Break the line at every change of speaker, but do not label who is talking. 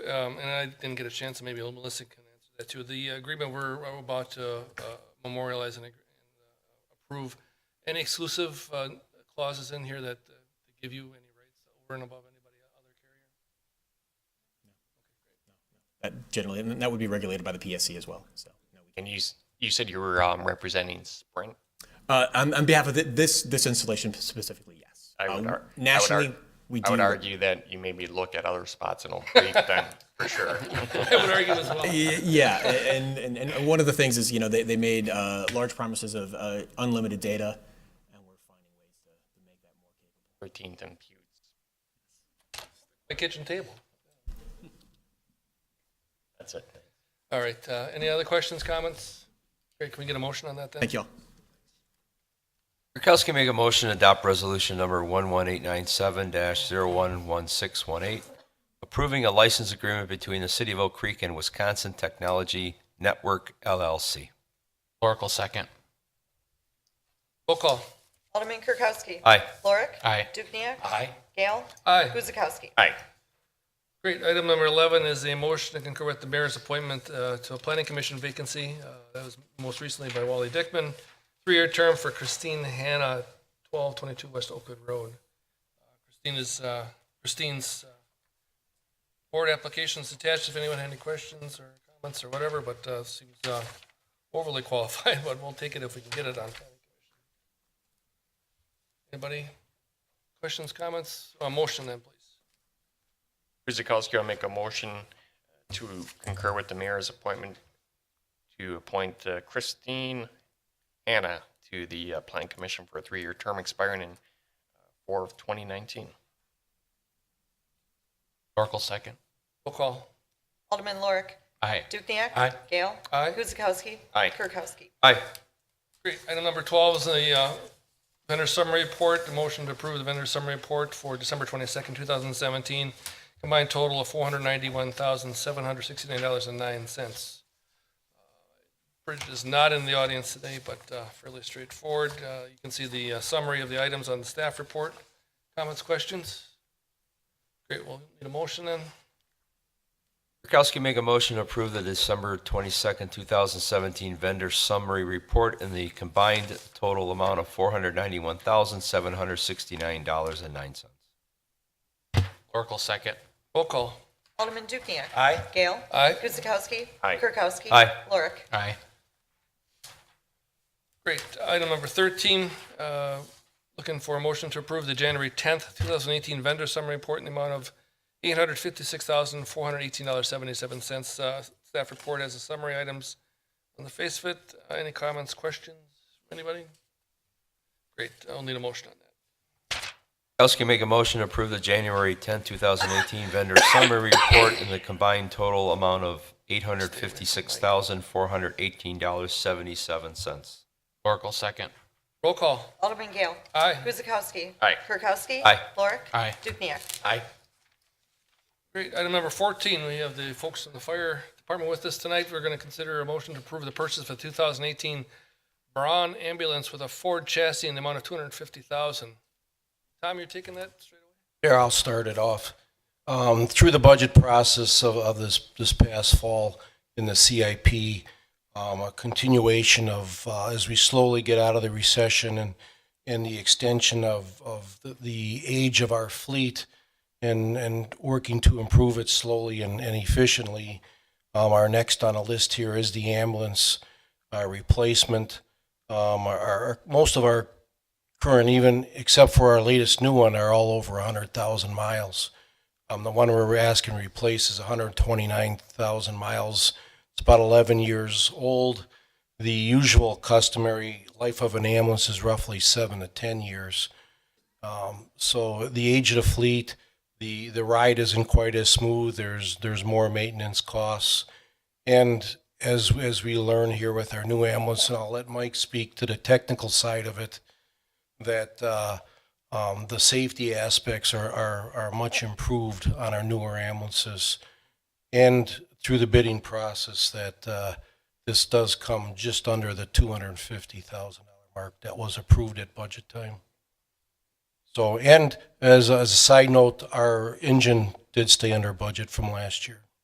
um, and I didn't get a chance, so maybe Melissa can answer that too. The agreement we're we're about to uh, memorialize and ag- and, uh, approve, any exclusive uh, clauses in here that uh, give you any rights over and above anybody other carrier?
That generally, and that would be regulated by the PSC as well. So, no, we
And you, s- you said you were um, representing Sprint.
Uh, on, on behalf of thi- this this installation specifically, yes.
I would
Uh,
ar-
nationally,
I would, ar-
we do.
I would argue that you maybe look at other spots in Oak Creek then, for sure.
I would argue as well.
Y- Yeah, a- and, and, and one of the things is you know they, they made uh, large promises of uh, unlimited data, and we're finding ways to, to make that more capable.
13th and Pewds.
My kitchen table.
That's it.
All right, uh, any other questions, comments? Great, can we get a motion on that then?
Thank you all.
Kirkowski make a motion to adopt resolution number 11897-011618, approving a license agreement between the City of Oak Creek and Wisconsin Technology Network LLC.
Oracle second.
Roll call.
Alderman Kirkowski.
Aye.
Lorik.
Aye.
Dukniak.
Aye.
Gale.
Aye.
Guzekowski.
Aye.
Great. Item number 11 is a motion to concur with the mayor's appointment uh, to a planning commission vacancy. Uh, That was most recently by Wally Dickman. Three-year term for Christine Hanna, 1222 West Oakwood Road. Christine is, uh, Christine's uh, board application's attached if anyone had any questions or comments or whatever, but uh, seems uh, overly qualified, but we'll take it if we can get it on planning commission. Anybody? Questions, comments? Uh, Motion then, please.
Kuzikowski will make a motion to concur with the mayor's appointment to appoint uh, Christine Anna to the uh, Plan Commission for a three-year term expiring in uh, 4 of 2019.
Oracle second.
Roll call.
Alderman Lorik.
Aye.
Dukniak.
Aye.
Gale.
Aye.
Guzekowski.
Aye.
Kirkowski.
Aye.
Great. Item number 12 is the uh, vendor summary report. The motion to approve the vendor summary report for December 22nd, 2017. Combined total of $491,769.09. Bridget Uh, is not in the audience today, but uh, fairly straightforward. Uh, You can see the uh, summary of the items on the staff report. Comments, questions? Great, we'll need a motion then.
Kirkowski make a motion to approve the December 22nd, 2017 vendor summary report in the combined total amount of $491,769.09.
Oracle second.
Roll call.
Alderman Dukniak.
Aye.
Gale.
Aye.
Guzekowski.
Aye.
Kirkowski.
Aye.
Lorik.
Aye.
Great. Item number 13, uh, looking for a motion to approve the January 10th, 2018 vendor summary report in the amount of $856,418.77. Uh, Staff report has the summary items on the face of it. Uh, Any comments, questions, anybody? Great. I'll need a motion on that.
Kirkowski make a motion to approve the January 10th, 2018 vendor summary report in the combined total amount of $856,418.77.
Oracle second.
Roll call.
Alderman Gale.
Aye.
Guzekowski.
Aye.
Kirkowski.
Aye.
Lorik.
Aye.
Dukniak.
Aye.
Great. Item number 14, we have the folks in the fire department with us tonight. We're going to consider a motion to approve the purchase of a 2018 Braun ambulance with a Ford chassis in the amount of 250000 Tom, you're taking that straight away?
Here, I'll start it off. Um, Through the budget process of, of this, this past fall in the CIP, um, a continuation of, uh, as we slowly get out of the recession and, and the extension of, of the- the age of our fleet and, and working to improve it slowly and and efficiently. Um, Our next on a list here is the ambulance uh, replacement. Um, Our, our- most of our current, even except for our latest new one, are all over 100,000 miles. Um, the one we're asking to replace is 129,000 miles. It's about 11 years old. The usual customary life of an ambulance is roughly seven to 10 years. Um, so the age of the fleet, the, the ride isn't quite as smooth. There's, there's more maintenance costs. And as, as we learn here with our new ambulance, and I'll let Mike speak to the technical side of it, that uh, um, the safety aspects are, are, are much improved on our newer ambulances. And through the bidding process, that uh, this does come just under the $250,000 mark that was approved at budget time. So, and as, as a side note, our engine did stay under budget from last year.